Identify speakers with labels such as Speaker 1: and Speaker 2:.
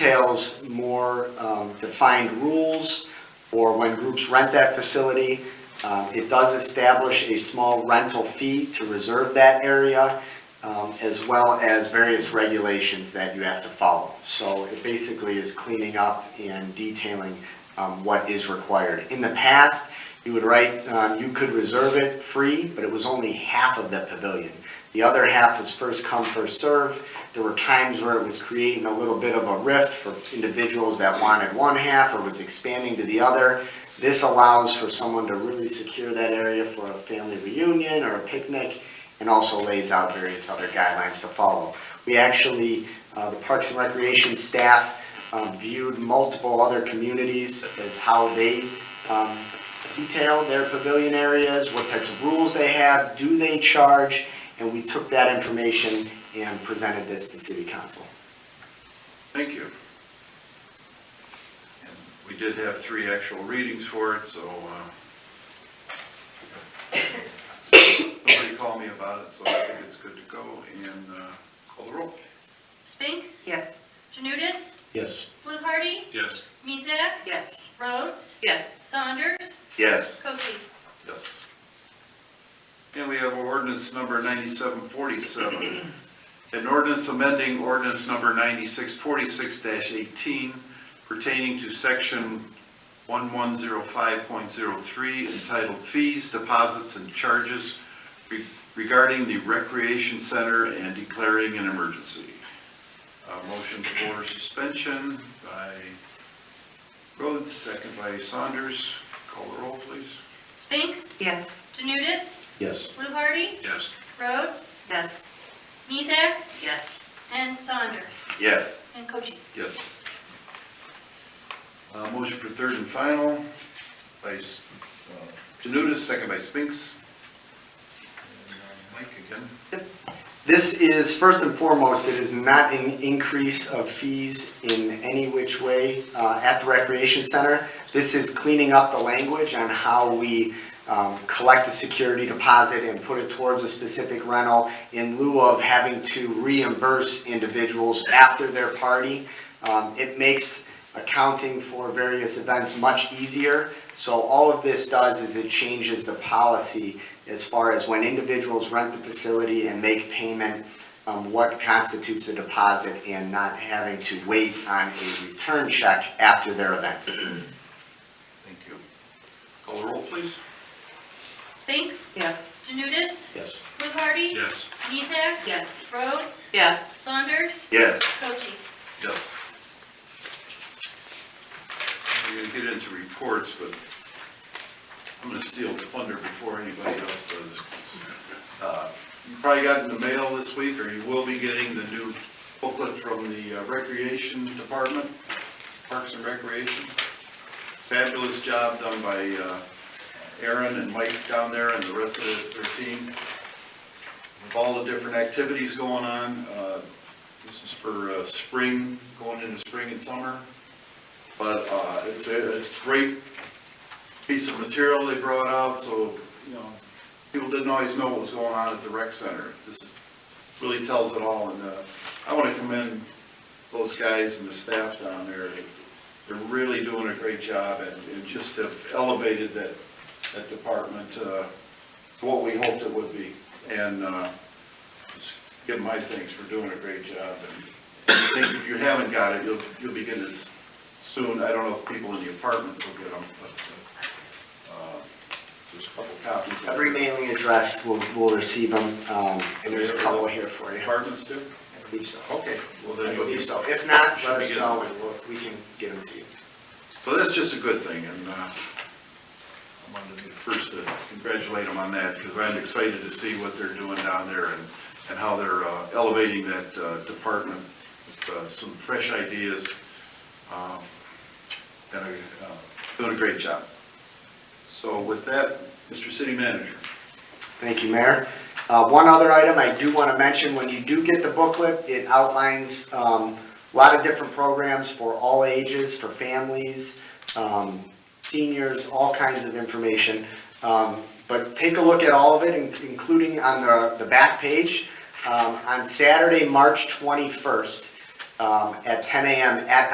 Speaker 1: details more um, defined rules for when groups rent that facility. Um, It does establish a small rental fee to reserve that area, um, as well as various regulations that you have to follow. So it basically is cleaning up and detailing um, what is required. In the past, you would write, um, you could reserve it free, but it was only half of the pavilion. The other half was first come, first serve. There were times where it was creating a little bit of a rift for individuals that wanted one half or was expanding to the other. This allows for someone to really secure that area for a family reunion or a picnic and also lays out various other guidelines to follow. We actually, uh, the Parks and Recreation staff um, viewed multiple other communities as how they um, detail their pavilion areas, what types of rules they have, do they charge? And we took that information and presented this to city council.
Speaker 2: Thank you. And We did have three actual readings for it, so, uh, nobody called me about it, so I think it's good to go and, uh, call the roll.
Speaker 3: Spinks?
Speaker 4: Yes.
Speaker 3: Janudis,
Speaker 1: Yes.
Speaker 3: Fluharty?
Speaker 2: Yes.
Speaker 3: Miesak?
Speaker 4: Yes.
Speaker 3: Rhodes?
Speaker 4: Yes.
Speaker 3: Saunders?
Speaker 2: Yes.
Speaker 3: Cosey?
Speaker 2: Yes. And we have ordinance number ninety-seven forty-seven. An ordinance amending ordinance number ninety-six forty-six eighteen pertaining to section one-one-zero-five-point-zero-three entitled Fees, Deposits, and Charges Re- regarding the Recreation Center and declaring an emergency. Uh, motion for suspension by Rhodes, second by Saunders. Call the roll, please.
Speaker 3: Spinks?
Speaker 4: Yes.
Speaker 3: Janudis,
Speaker 1: Yes.
Speaker 3: Fluharty?
Speaker 2: Yes.
Speaker 3: Rhodes?
Speaker 4: Yes.
Speaker 3: Miesak?
Speaker 4: Yes.
Speaker 3: And Saunders?
Speaker 2: Yes.
Speaker 3: And Cosey?
Speaker 2: Yes. Uh, motion for third and final by S- uh, Janutus, second by Spinks. And, uh, Mike again.
Speaker 1: This is, first and foremost, it is not an increase of fees in any which way uh, at the recreation center. This is cleaning up the language on how we um, collect a security deposit and put it towards a specific rental in lieu of having to reimburse individuals after their party. Um, It makes accounting for various events much easier. So all of this does is it changes the policy as far as when individuals rent the facility and make payment, um, what constitutes a deposit and not having to wait on a return check after their event.
Speaker 2: Thank you. Call the roll, please.
Speaker 3: Spinks?
Speaker 4: Yes.
Speaker 3: Janudis,
Speaker 1: Yes.
Speaker 3: Fluharty?
Speaker 2: Yes.
Speaker 3: Miesak?
Speaker 4: Yes.
Speaker 3: Rhodes?
Speaker 4: Yes.
Speaker 3: Saunders?
Speaker 2: Yes.
Speaker 3: Cosey?
Speaker 2: Yes. We're gonna get into reports, but I'm gonna steal the thunder before anybody else does. Uh, You probably got in the mail this week, or you will be getting the new booklet from the uh, Recreation Department, Parks and Recreation. Fabulous job done by uh, Aaron and Mike down there and the rest of their team. With all the different activities going on, uh, this is for uh, spring, going into spring and summer. But uh, it's a it's a great piece of material they brought out, so, you know, people didn't always know what was going on at the rec center. This is, really tells it all, and uh, I want to commend those guys and the staff down there. They're really doing a great job and and just have elevated that, that department uh, to what we hoped it would be. And uh, just give my thanks for doing a great job. And I think if you haven't got it, you'll, you'll be getting it s- soon. I don't know if people in the apartments will get them, but uh, just a couple copies.
Speaker 1: Every mailing address will, will receive them, um, and there's a couple here for you. I
Speaker 2: Apartments too?
Speaker 1: believe so.
Speaker 2: Okay, well
Speaker 1: I
Speaker 2: then you'll
Speaker 1: believe
Speaker 2: be.
Speaker 1: so. If not,
Speaker 2: Should
Speaker 1: let
Speaker 2: be
Speaker 1: us
Speaker 2: good.
Speaker 1: know and we'll- we can get them to you.
Speaker 2: So that's just a good thing, and uh, I wanted to be the first to congratulate them on that, because I'm excited to see what they're doing down there and, and how they're uh, elevating that uh, department with uh, some fresh ideas. um, And uh, doing a great job. So with that, Mr. City Manager.
Speaker 1: Thank you, Mayor. Uh, One other item I do want to mention, when you do get the booklet, it outlines um, a lot of different programs for all ages, for families, um, seniors, all kinds of information. Um, But take a look at all of it, in- including on the the back page. Um, On Saturday, March 21st, um, at 10 a.m. at